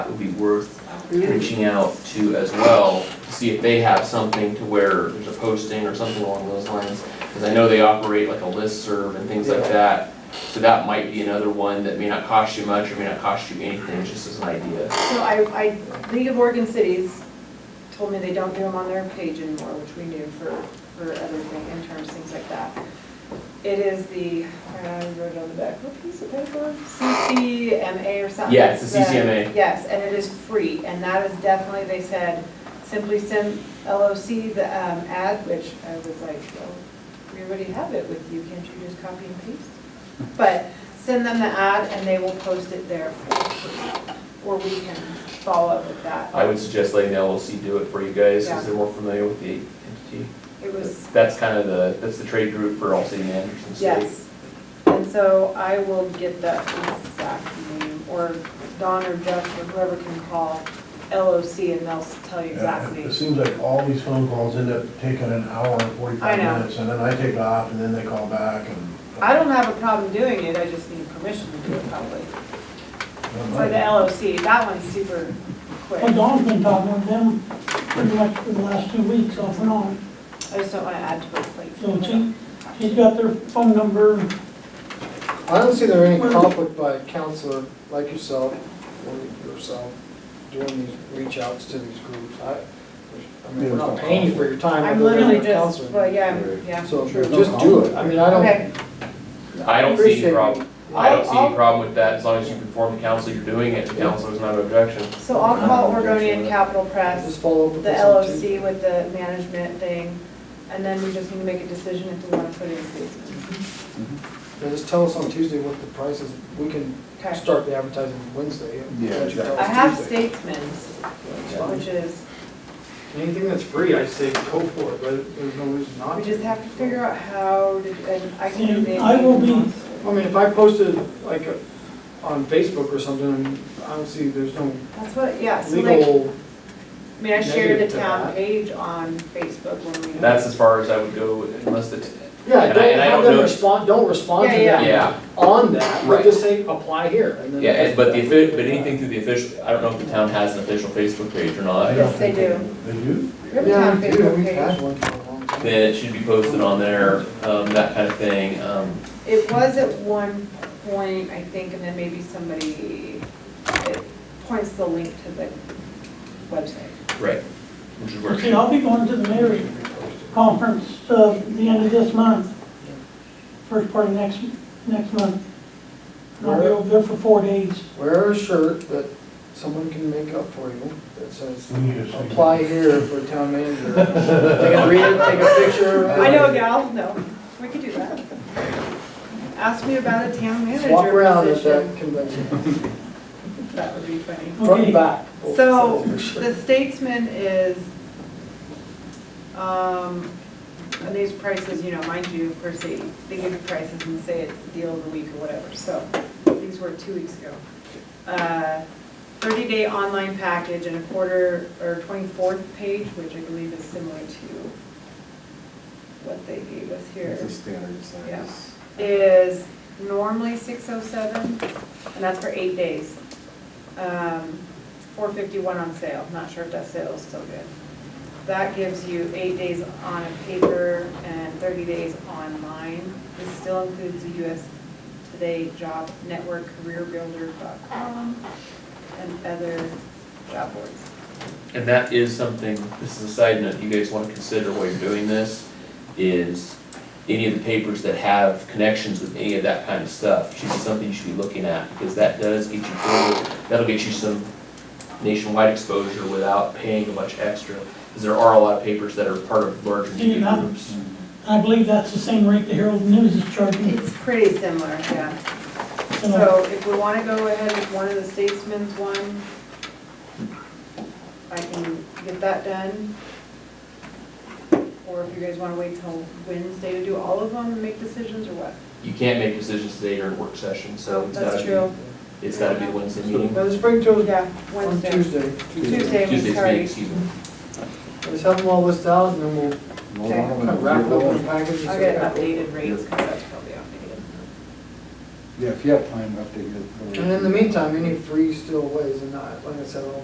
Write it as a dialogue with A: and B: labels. A: be worth reaching out to as well, to see if they have something to where there's a posting or something along those lines. Because I know they operate like a listserv and things like that, so that might be another one that may not cost you much or may not cost you anything, just as an idea.
B: So I, I, League of Oregon Cities told me they don't do them on their page anymore, which we knew for, for other things, interns, things like that. It is the, I wrote it on the back, what piece of paper? CCMA or something.
A: Yeah, it's the
B: that-
A: CCMA.
B: Yes, and it is free, and that is definitely, they said, simply send LOC the um, ad, which I was like, well, we already have it with you, can't you just copy and paste? But send them the ad and they will post it there for free, or we can follow up with that.
A: I would suggest letting the LLC do it for you guys,
B: Yeah.
A: because they're more familiar with the entity.
B: It was,
A: That's kind of the, that's the trade group for all city managers in the state.
B: yes. And so I will get that exact name, or Don or Jeff or whoever can call LOC and they'll tell you exactly.
C: It seems like all these phone calls end up taking an hour and
B: I
C: forty-five
B: know.
C: minutes, and then I take off, and then they call back, and.
B: I don't have a problem doing it, I just need permission to do it probably. For the
C: Well,
B: LOC, that one's super quick.
D: Well, Dawn's been talking with them pretty much for the last two weeks off and on.
B: I just don't want to add to it, like.
D: So she, she's got their phone number.
E: I don't see there any conflict by a counselor like yourself or yourself doing these reach outs to these groups. I, I mean, we're not paying you for your time.
B: I'm
E: we're doing it
B: literally
E: for
B: just,
E: counseling.
B: well, yeah, I'm- yeah,
E: So
B: true.
E: just do it. I mean, I
B: Okay.
E: don't.
A: I don't see any
E: appreciate it.
A: problem. I don't see
B: I'll-
A: any
B: I'll-
A: problem with that, as long as you inform the council you're doing it, the councilor's not an objection.
B: So I'll call Oregonian Capital
E: Just
B: Press,
E: follow up with
B: the
E: this.
B: LOC
E: on Tuesday.
B: with the management thing, and then we just need to make a decision if we want to put in season.
E: Yeah, Just tell us on Tuesday what the price is. We can
B: Okay.
E: start the advertising Wednesday. and
F: Yeah,
E: let you tell
B: I
E: us
B: have
E: Tuesday.
B: Statesman's,
E: It's
B: which
E: fine.
B: is,
E: Anything that's free, I say go for it, but there's no reason not
B: we
E: to.
B: just have to figure out how to, and I can. do
D: And
B: the-
D: I will be-
E: I mean, if I posted like on Facebook or something, I don't see, there's no
B: That's what, yeah, so like,
E: legal
B: I mean, I shared the
E: negative to
B: town
E: that.
B: page on Facebook when we.
A: That's as far as I would go unless the,
E: Yeah,
A: And I-
E: don't
A: and I
E: have
A: don't
E: them
A: know-
E: respond, don't respond to
B: Yeah,
A: yeah.
E: them on that,
A: Right.
E: but just say, apply here. and then-
A: yeah, and- but the, offi- but anything through the official, I don't know if the town has an official Facebook page or
C: I
A: not,
C: don't
B: Yes, they
C: think They do?
B: We have a
E: Yeah,
B: town
E: we do,
B: Facebook
E: we've
B: page.
E: had one for a long time.
A: then it should be posted on there, um, that kind of thing, um,
B: It was at one point, I think, and then maybe somebody, it points the link to the website.
A: right. Which is where, it
D: See,
A: should-
D: I'll be going to the mayor's conference, uh, the end of this month. First part of next, next month. And I'll be over there for four days.
E: Wear a shirt that someone can make up for you that says,
C: We need a signature.
E: apply here for town manager. They can read it, take a picture. of it.
B: I know a gal, no, we could do that. Ask me about a town
E: Just Walk around
B: manager
E: at that
B: position.
E: convention,
B: That would be funny.
E: front
D: Okay.
E: and back. both
B: So,
E: sides of your
B: the
E: shirt.
B: Statesman is, um, and these prices, you know, mind you, of course, they, they give you prices and say it's the deal of the week or whatever, so, these were two weeks ago. Uh, Thirty-day online package and a quarter, or twenty-fourth page, which I believe is similar to what they gave us here
F: It's a standard size.
B: Yeah. is normally six oh seven, and that's for eight days. Um, four fifty-one on sale, not sure if that sale is still good. That gives you eight days on paper and thirty days online. This still includes the US Today Job Network, careerbuilder.com, and other job boards.
A: and that is something, this is a side note, you guys wanna consider while you're doing this, is any of the papers that have connections with any of that kind of stuff should be something you should be looking at, because that does get you forward, that'll get you some nationwide exposure without paying much extra, because there are a lot of papers that are part of larger media
D: Yeah.
A: groups.
D: I believe that's the same rate the Herald News is charging.
B: It's pretty similar, yeah. So if we want to go ahead with one of the Statesman's one, I can get that done. Or if you guys want to wait till Wednesday to do all of them and make decisions or what?
A: You can't make decisions today during work session, so it's
B: That's
A: gotta
B: true.
A: be, it's gotta be Wednesday meeting.
E: Now, just bring to us
B: Yeah,
E: on
B: Wednesday.
E: Tuesday.
B: Tuesday, we
A: Tuesday's meeting,
B: sorry.
A: excuse me.
E: Just have them all listed out and then we'll
F: Hold on,
E: kind of wrap it up in a
F: we'll-
E: package. and
B: I'll
E: say,
B: get
E: "Yeah, go for it."
B: updated rates because that's probably outdated.
F: Yeah, if you have time, update it.
E: And in the meantime, any free still ways, and I, like I said, I'll